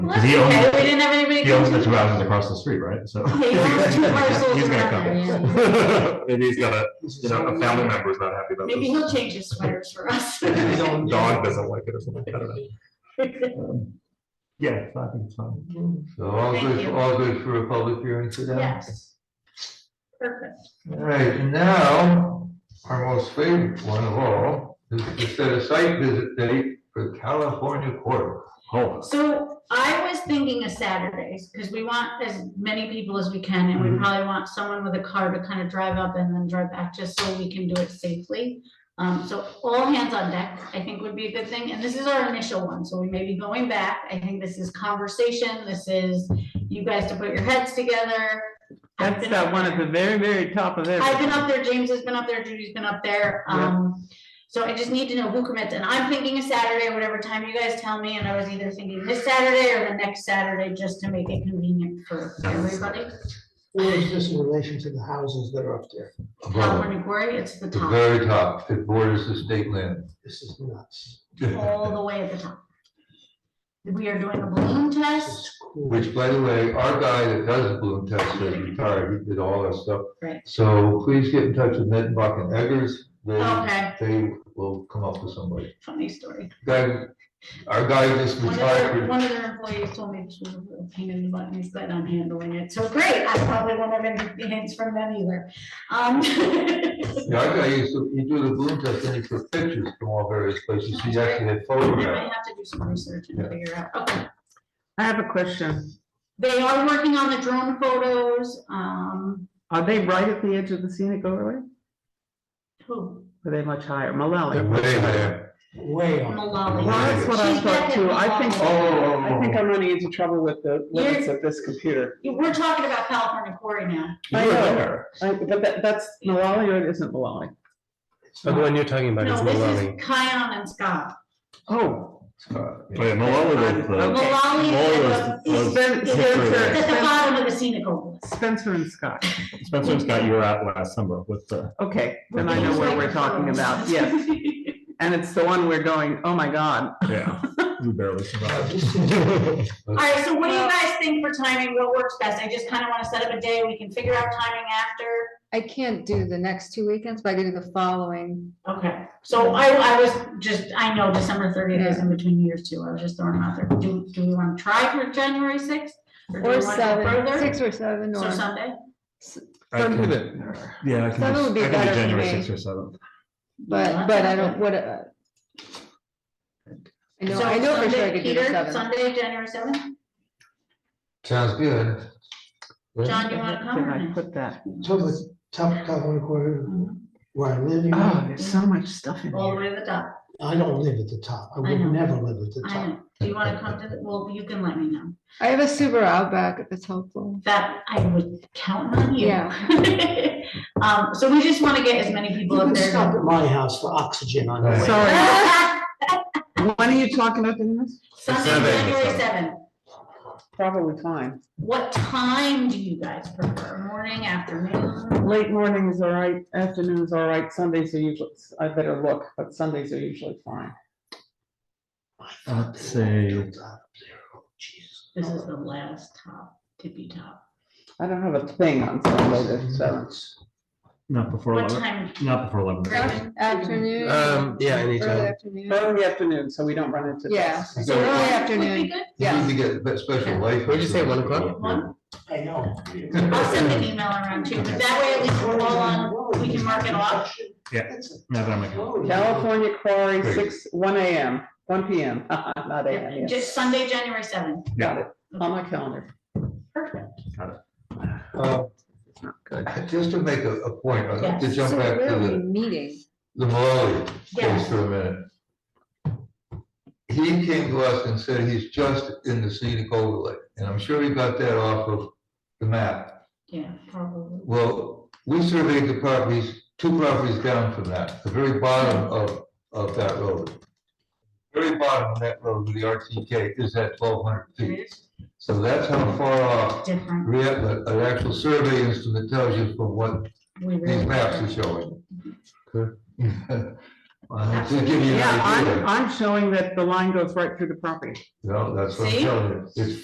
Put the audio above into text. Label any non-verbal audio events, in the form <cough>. Because he owns, Okay, we didn't have anybody. he owns the come to- two houses across the street, right? So. Yeah, he <laughs> owns two parcels He's gonna around <laughs> come. Maybe he's got a, you know, a family member who's not happy about Maybe this. <laughs> he'll change his sweaters for us. His own dog doesn't like it or something, I don't know. Um, Yeah, so I think it's fine. So all Thank good, you. all good for a public hearing today? Yes. Perfect. All right, and now, our most favorite one of all, is to set a site visit date for California Quarter. Hold So I was thinking of Saturdays, because we want as many people as we can, and we Mm-hmm. Mhm. probably want someone with a car to kind of drive up and then drive back, just so we can do it safely. Um, so all hands on deck, I think would be a good thing, and this is our initial one, so we may be going back, I think this is conversation, this is you guys to put your heads together. I've That's been that up one at there. the very, very top of I've been everything. up there, James has been up there, Judy's been up there, um, so I just need to know who commits, and I'm thinking a Saturday, whatever time you guys tell me, and I was either thinking this Saturday or the next Saturday, just to make it convenient for everybody. Where is this in relation to the houses that are up there? Above, California Quarry, it's the The top, very top, it borders the state land. This is nuts. all the way at the top. We are doing a balloon test, It's cool. Which, by the way, our guy that does the balloon test is retired, he did all that stuff. Right. So please get in touch with Nettenbach and Eggers, they, okay, they will come up with somebody. funny story. Guy, our guy just One of their, retired, one of their employees told me this was a pain in the butt, and he's glad I'm handling it, so great, I probably won't have any hints from them either. Um, <laughs> Yeah, our guy used to, he do the balloon test, and he took pictures from all various places, he actually had I photographs. might have to do some research and Yeah. figure out, okay. I have a question. They are working on the drone photos, um, Are they right at the edge of the scenic overlay? who, Or Are they much higher? They're Malawi? way there. Way up. <laughs> Malali. Well, that's what I She's thought back too. at I think, Malawi. I think I'm running into trouble with the limits of this computer. We're talking about California Quarry now, I You're know. there. I- Uh, But that, that's Malawi or it isn't Malawi? It's Oh, The not- one you're talking about is no, this Malawi. is Kion and Scott. Oh, Oh, yeah, Malala was, uh, Okay. Malali Malala is was- is- Spen- is Spencer. at the Spencer, bottom of the scenic overlist. Spencer and Scott. Spencer and Scott, you were out last summer with the, Okay, then I know what we're talking about. Yes. And it's the one we're going, oh my God. yeah, you barely <laughs> survived. This is- <laughs> All right, so what do you guys think for timing, what works best? I just kind of want to set up a day, we can figure out timing after. I can't do the next two weekends, but I can do the following. Okay, so I, I was just, I know December thirtieth is in between years too, I was just throwing them out there. Do, do we want to try for January sixth? Or seven, six or seven, So or Sunday, I can- Yeah, I can, Seven would do- be I can better do for January me. sixth or seventh. but, but I don't, what, uh. I so know, I know for sure I Sunday, could do the Peter, seven. Sunday, January seventh, Sounds good. John, you wanna come Did I or put that? So the top, top one quarter no? Mm-hmm. where I live, you Oh, know, Ah. there's so much stuff in All the here. way to the top, I don't live at the top. I I know. would never live at the I top. know, do you wanna come to the, well, you can let me know, I have a Subaru Outback if it's helpful. that, I would count on you. Yeah. <laughs> Um, so we just wanna get as many people You up can stop there. at my house for oxygen on the Right. way. Sorry, when are you talking about doing this? <laughs> Sunday, Sunday. January seventh, Probably time. what time do you guys prefer, morning, afternoon? Late morning is all right, afternoon is all right, Sundays are usually, I better look, but Sundays are usually fine. Let's say, This is the last top, tippy top. I don't have a thing on Sunday the seventh. not before What eleven, time? not before eleven. Right. Afternoon. Um, yeah, Early anytime. afternoon. Early afternoon, so we don't run into Yeah, this. so early Would be afternoon. good. You need to get a bit special license. What'd you say, one o'clock? One? I know. I'll send an email around too, but that way at least we're all on, we can mark it off. Yeah. That's a Now that I'm like, road. California quarry, six, one AM, one PM, <laughs> not AM, yes, Just Sunday, January seventh. got it, on my calendar. Perfect. Uh, Good. Just to make a, a point, I'd like to Yes. jump So back where to are we the, meeting? the Malawi case Yes. for a minute. He came to us and said he's just in the scenic overlay, and I'm sure he got that off of the map. Yeah, probably. Well, we surveyed the properties, two properties down from that, the very bottom of, of that road. Very bottom of that road with the RTK is at twelve hundred feet. It is So that's how far off different. rea- uh, an actual survey instrument tells you from what We these really- <laughs> maps are showing. I'm just giving you an Yeah, I'm, idea. I'm showing that the line goes right through the property. No, that's what I'm See? telling you. It's